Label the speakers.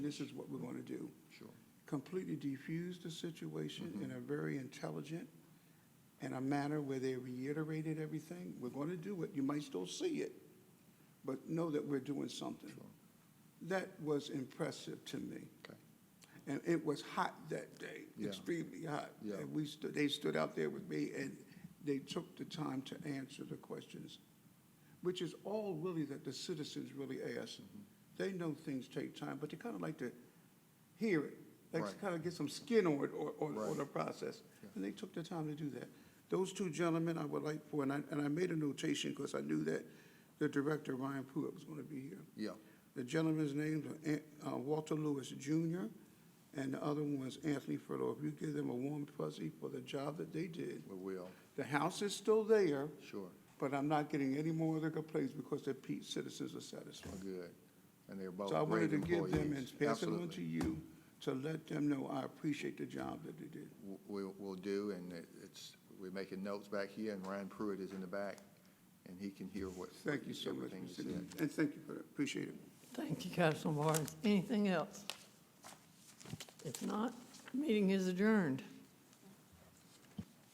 Speaker 1: this is what we're going to do.
Speaker 2: Sure.
Speaker 1: Completely defuse the situation
Speaker 2: Mm-hmm.
Speaker 1: in a very intelligent and a manner where they reiterated everything. We're going to do it. You might still see it, but know that we're doing something. That was impressive to me.
Speaker 2: Okay.
Speaker 1: And it was hot that day,
Speaker 2: Yeah.
Speaker 1: extremely hot.
Speaker 2: Yeah.
Speaker 1: And we stood, they stood out there with me and they took the time to answer the questions, which is all really that the citizens really ask.
Speaker 2: Mm-hmm.
Speaker 1: They know things take time, but they kind of like to hear it, like to
Speaker 2: Right.
Speaker 1: kind of get some skin on it or, or, or
Speaker 2: Right.
Speaker 1: the process. And they took the time to do that. Those two gentlemen I would like for, and I, and I made a notation because I knew that the director, Ryan Pruitt, was going to be here.
Speaker 2: Yeah,
Speaker 1: The gentleman's names are An- uh, Walter Lewis Jr., and the other one was Anthony Furlow. If you give them a warm fuzzy for the job that they did.
Speaker 2: we will,
Speaker 1: The house is still there,
Speaker 2: sure,
Speaker 1: but I'm not getting any more of the complaints because the Pete citizens are satisfied.
Speaker 2: good. And they're both
Speaker 1: So I
Speaker 2: Oh, great
Speaker 1: wanted to give them
Speaker 2: employees.
Speaker 1: and pass it on to
Speaker 2: Absolutely.
Speaker 1: you to let them know I appreciate the job that they did.
Speaker 2: W- We'll, we'll do, and it- it's, we're making notes back here, and Ryan Pruitt is in the back, and he can hear what.
Speaker 1: Thank you so much,
Speaker 2: everything you
Speaker 1: Mr.
Speaker 2: said.
Speaker 1: Dean, and thank you for that. Appreciate it.
Speaker 3: Thank you, Councilman Barnes. Anything else? If not, meeting is adjourned.